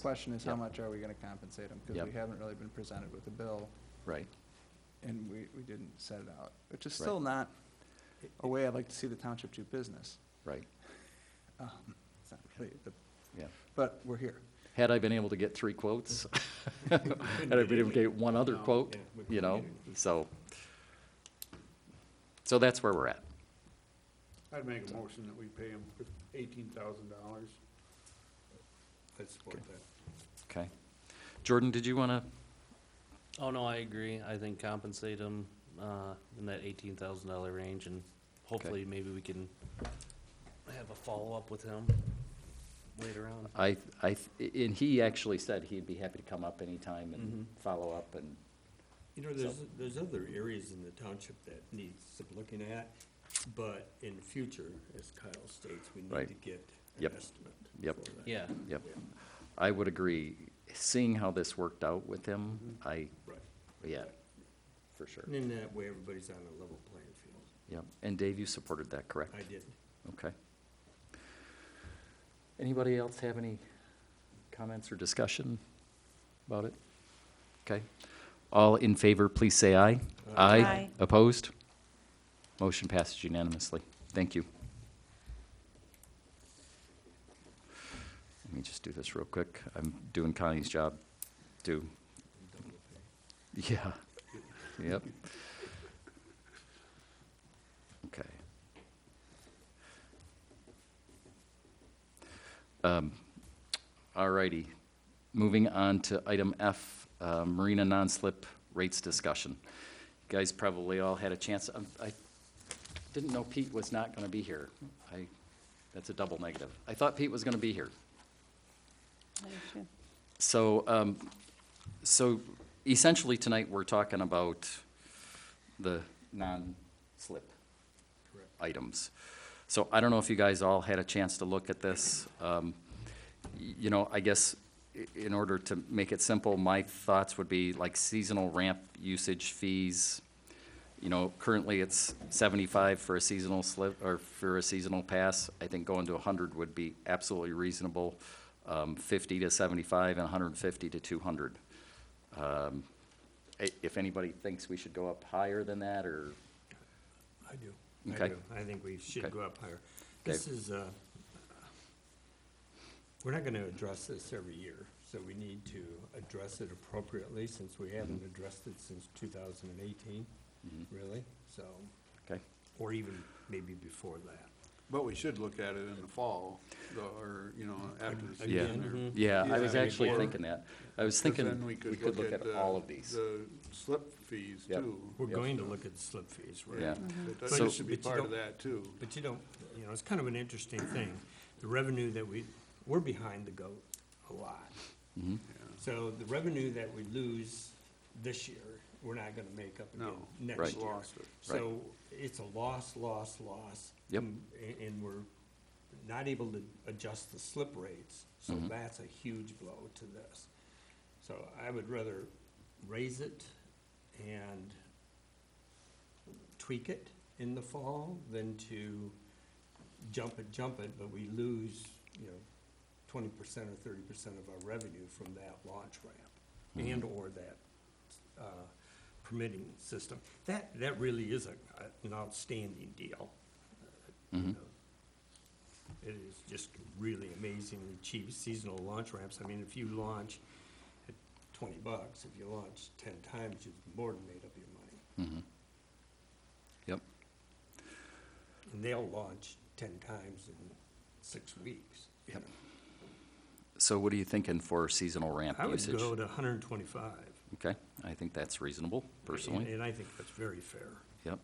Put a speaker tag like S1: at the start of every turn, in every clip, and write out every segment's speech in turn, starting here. S1: Question is, how
S2: Yep.
S1: much are we going to compensate them? Because
S2: Yep.
S1: we haven't really been presented with a bill,
S2: Right,
S1: and we, we didn't set it out, which is still not a way I'd like to see the township do business.
S2: right,
S1: Um, It's not really the,
S2: yeah.
S1: but we're here.
S2: Had I been able to get three quotes, had I been able to get one other
S3: No,
S2: quote,
S3: yeah, we
S2: you
S3: couldn't
S2: know,
S3: get anything.
S2: so. So that's where we're at.
S3: I'd make a motion that we pay him eighteen thousand dollars. I support that.
S2: Okay. Jordan, did you want to,
S4: Oh, no, I agree. I think compensate them uh, in that eighteen thousand dollar range, and hopefully, maybe we can have a follow-up with him later on.
S2: I, I, and he actually said he'd be happy to come up anytime and
S4: Mhm.
S2: follow up and,
S5: You know, there's, there's other areas in the township that needs some looking at, but in the future, as Kyle states, we
S2: Right.
S5: need to get an
S2: Yep.
S5: estimate.
S2: Yep.
S5: for that.
S4: Yeah,
S2: yep. I would agree. Seeing how this worked out with him, I,
S5: Right.
S2: yeah, for sure.
S5: And in that way, everybody's on a level playing field.
S2: Yep. And Dave, you supported that, correct?
S5: I did.
S2: Okay. Anybody else have any comments or discussion about it? Okay. All in favor, please say aye.
S5: Aye.
S6: Aye.
S2: Opposed? Motion passes unanimously. Thank you. Let me just do this real quick. I'm doing Connie's job, too. Yeah. Yep. Okay. Um, All righty. Moving on to item F, uh, Marina non-slip rates discussion. You Guys probably all had a chance, um, I didn't know Pete was not going to be here. I, that's a double negative. I thought Pete was going to be here. So, um, so essentially tonight, we're talking about the non-slip items. So I don't know if you guys all had a chance to look at this. Um, y- you know, I guess i- in order to make it simple, my thoughts would be like seasonal ramp usage fees. You know, currently it's seventy-five for a seasonal slip, or for a seasonal pass. I think going to hundred would be absolutely reasonable. Um, fifty to seventy-five and hundred and fifty to two hundred. Um, i- if anybody thinks we should go up higher than that, or,
S5: I do.
S2: Okay.
S5: I do. I think we should
S2: Okay.
S5: go up higher. This is, uh, we're not gonna address this every year, so we need to address it appropriately since we
S2: Mm-hmm.
S5: haven't addressed it since two thousand and eighteen, really, so,
S2: okay?
S5: or even maybe before that.
S3: But we should look at it in the fall, though, or, you know, after the
S5: Yeah.
S3: season. or-
S2: Yeah, I was
S3: Yeah.
S2: actually
S3: Or-
S2: thinking that. I was
S3: 'cause
S2: thinking
S3: then
S2: we could look at
S3: the-
S2: all of these.
S3: The slip fees
S2: Yep.
S3: too.
S5: We're going to look at the slip fees, right?
S2: Yeah,
S3: But
S5: But
S3: That
S5: you-
S3: should be
S5: but you
S3: part of
S5: don't-
S3: that too.
S5: But you don't, you know, it's kind of an interesting thing. The revenue that we, we're behind the goat a lot. So the revenue that we lose this year, we're not gonna make up again
S3: No,
S2: Right.
S5: next year.
S3: lost it.
S5: So it's a loss, loss, loss.
S2: Yep.
S5: And, Mm, and we're not able to adjust the slip rates, so
S2: Mhm.
S5: that's a huge blow to this. So I would rather raise it and tweak it in the fall than to jump it, jump it, but we lose, you know, twenty percent or thirty percent of our revenue from that launch ramp and/or that, uh, permitting system. That, that really is a, an outstanding deal.
S2: Mhm.
S5: It is just really amazingly cheap seasonal launch ramps. I mean, if you launch at twenty bucks, if you launch ten times, you've more than made up your money.
S2: mhm. Yep,
S5: And they'll launch ten times in six weeks. you
S2: Yep.
S5: know.
S2: so what are you thinking for seasonal ramp
S5: I would
S2: usage?
S5: go to hundred and twenty-five.
S2: Okay, I think that's reasonable personally,
S5: And I think that's very fair.
S2: yep.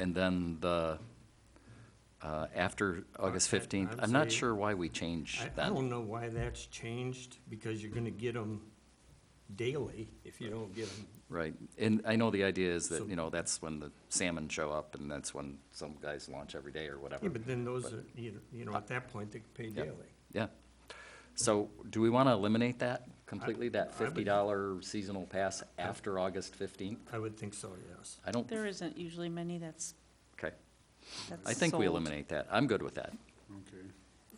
S2: And then the, uh, after August
S5: I- I
S2: fifteenth,
S5: would
S2: I'm not
S5: say-
S2: sure why we changed
S5: I, I
S2: that.
S5: don't know why that's changed, because you're gonna get them daily if you don't get them
S2: Right, and I know the idea is
S5: So-
S2: that, you know, that's when the salmon show up and that's when some guys launch every day or whatever.
S5: Yeah, but then those are, you know, you know, at that point, they can pay
S2: Yeah.
S5: daily.
S2: Yeah. So do we want to eliminate that completely,
S5: I
S2: that
S5: would-
S2: fifty dollar seasonal pass after August fifteenth?
S5: I would think so, yes.
S2: I don't,
S6: There isn't usually many that's,
S2: okay.
S6: that's
S2: I think we
S6: sold.
S2: eliminate that. I'm good with that.
S3: Okay.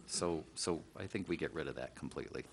S2: So, so I think we get rid of that completely.